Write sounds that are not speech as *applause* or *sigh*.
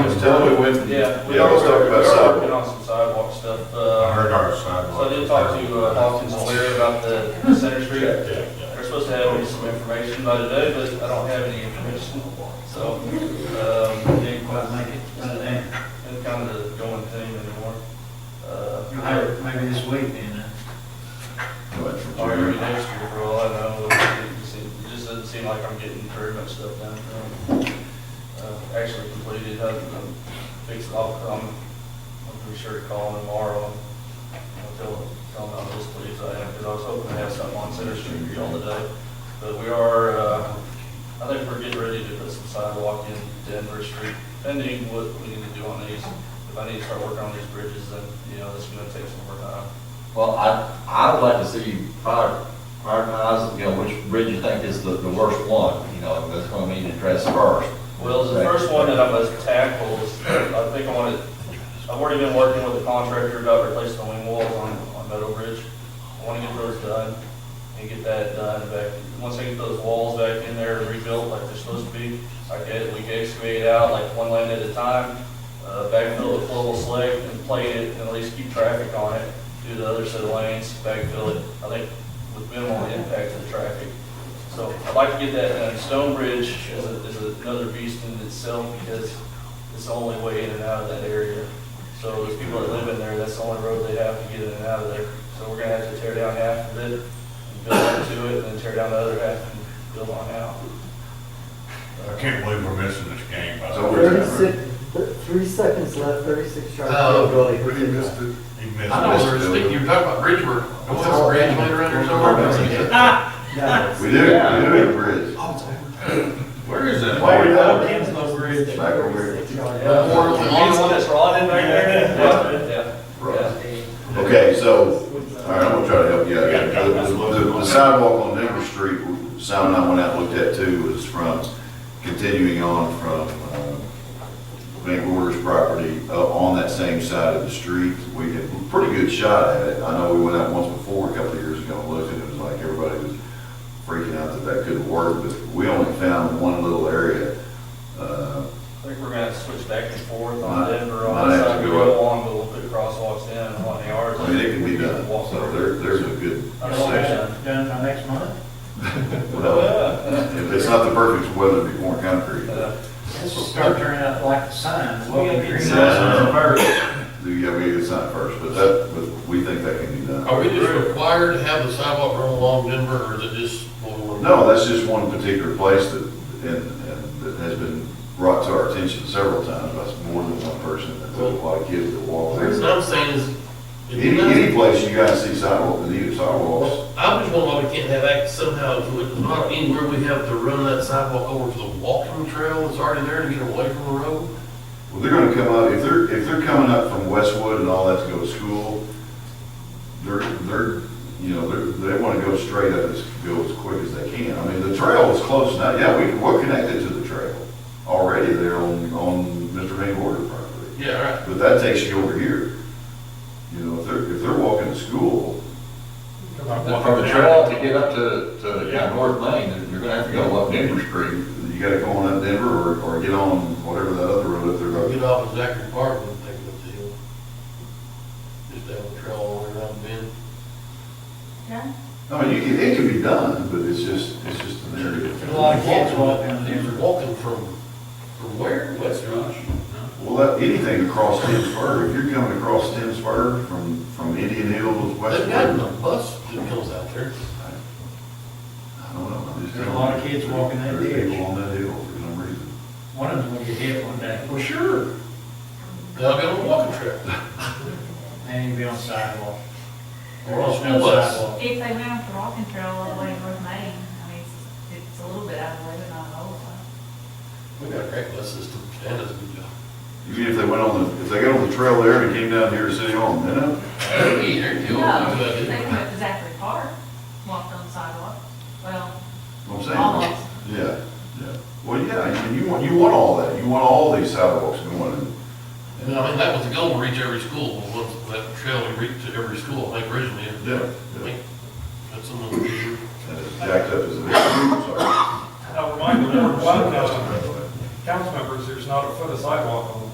tell me when. Yeah. we Yeah, let's are- talk we about are sidewalk. Working on some sidewalk stuff, I uh, heard our so I sidewalk. did talk to uh, Hawkins and Leary about the Center Street. Yeah, yeah. They're supposed to have me some information by today, but I don't have any information, so, um, they Well, make it, uh, then, It's kind of the going thing anymore. Uh, you'll have it maybe this week then, huh? Wait for Or Jerry. maybe next year for all I know, it just seem- it just doesn't seem like I'm getting very much stuff done. um, uh, Actually completed, I can fix it all, I'm, I'm pretty sure to call him tomorrow. and I'll tell him, tell him how those leaves I have, because I was hoping to have something on Center Street for y'all today. But we are, uh, I think we're getting ready to put some sidewalk in Denver Street, pending what we need to do on these. If I need to start working on these bridges, then, you know, it's gonna take some more time. Well, I, I would like to see you prior- prioritize, you know, which bridge you think is the, the worst one, you know, that's gonna need addressed first. Well, the first one that I must tackle is, I think I want to, I've already been working with the contractor about replacing the wing walls on, on Meadow Bridge. I want to get those done and get that done back. Once I get those walls back in there and rebuilt like they're supposed to be, I get, we can excavate out like one lane at a time, uh, backfill with global slate and plate it and at least keep traffic on it. Do the other set of lanes, backfill it, I think with minimal impact to the traffic. So I'd like to get that uh, done. Stonebridge is, a- is another beast in itself because it's the only way in and out of that area. So there's people that live in there, that's the only road they have to get in and out of there. So we're gonna have to tear down half of it, and build up to it, and then tear down the other half and build on out. I can't believe we're missing this game. by the So way. Thirty-six, th- three seconds left, thirty-six sharp. Really Oh, missed it. He missed I know, it. we're thinking, you were talking about Bridgeport. What's that bridge right around there somewhere? No. We do, we do have a bridge. Where is that? Why we don't- Kinslow Bridge. Back over here. 36 yard. Or the Yeah. long one that's rotted back there. Yeah, yeah. Right. Okay, so, all right, I'm gonna try to help you out. here. The the- the sidewalk on Denver Street, Sam and I went out and looked at too, was from, continuing on from uh, Van Gorder's property up on that same side of the street. We had a pretty good shot at it. I know we went out once before, a couple of years ago, and looked, and it was like everybody was freaking out that that couldn't work, but we only found one little area. uh, I think we're gonna have to switch back and forth Might- on Denver, on the might have to side we go go on, but we'll put crosswalks in and on the yards. I mean, it can be done, Walk so over. there, there's a good I don't Oh, know, section. man. Done by next month? Well, Yeah. *laughs* If it's not the perfect weather to be pouring concrete, Uh, This will start turning out like the signs. We'll get green signs. signs first. do you have to get it signed first, but that, but we think that can be done. Are we just required to have the sidewalk run along Denver, or is it just? No, that's just one particular place that, and, and that has been brought to our attention several times by more than one person, that there's a lot of kids that walk The reason there. I'm saying is, Any, any place you guys see sidewalk, the need of sidewalks, I just wonder why we can't have access somehow to it, not anywhere we have to run that sidewalk over to the walking trail that's already there to get away from the road. well, they're gonna come up, if they're, if they're coming up from Westwood and all that to go to school, they're, they're, you know, they're, they wanna go straight up, as, go as quick as they can. I mean, the trail is close now, yeah, we, we're connected to the trail already there on, on Mr. Van Gorder property. Yeah, right. But that takes you over here. You know, if they're, if they're walking to school, From the trail to get up to, to yeah, North Main, you're gonna have to go up Denver Street. you gotta go on up Denver or, or get on whatever that other road up Or there. get off of Zachary Park and take it up the hill. Just have a trail all the way around the bend. I mean, you can, it can be done, but it's just, it's just an area. There's a lot of kids walking in Denver. Walking from, from where? West Rush. Well, that, anything across Tim's Spur, if you're coming across Tim's Spur from, from Indian Hills, They've got Westwood, a bus that comes out there. I don't know. I'm just There's a lot of kids walking that There's ditch. people on that hill for some reason. One of them's gonna get hit one day, Well, sure. They'll get on a walking trail. and he'll be on sidewalk. Or on No school bus. sidewalk. If they went off the walking trail all the way to North Main, I mean, it's, it's a little bit out of the way, but not a whole lot. We got a great bus system. Dan does a good job. Even if they went on the, if they got on the trail there and "Oh, came down here to City Hall, then up. Hey, there you go. No, they went to Zachary Park, walked on the sidewalk, well, I'm saying. almost. Yeah, yeah. Well, yeah, I mean, you want, you want all that. You want all these sidewalks going and And I mean, that was the goal, to reach every school, but once that trail we reached to every school, I think originally. Yeah, I yeah. think That's something. we- and it's jacked up as it is. Sorry. Now, remind the board, one, uh, council members, there's not a foot of sidewalk on the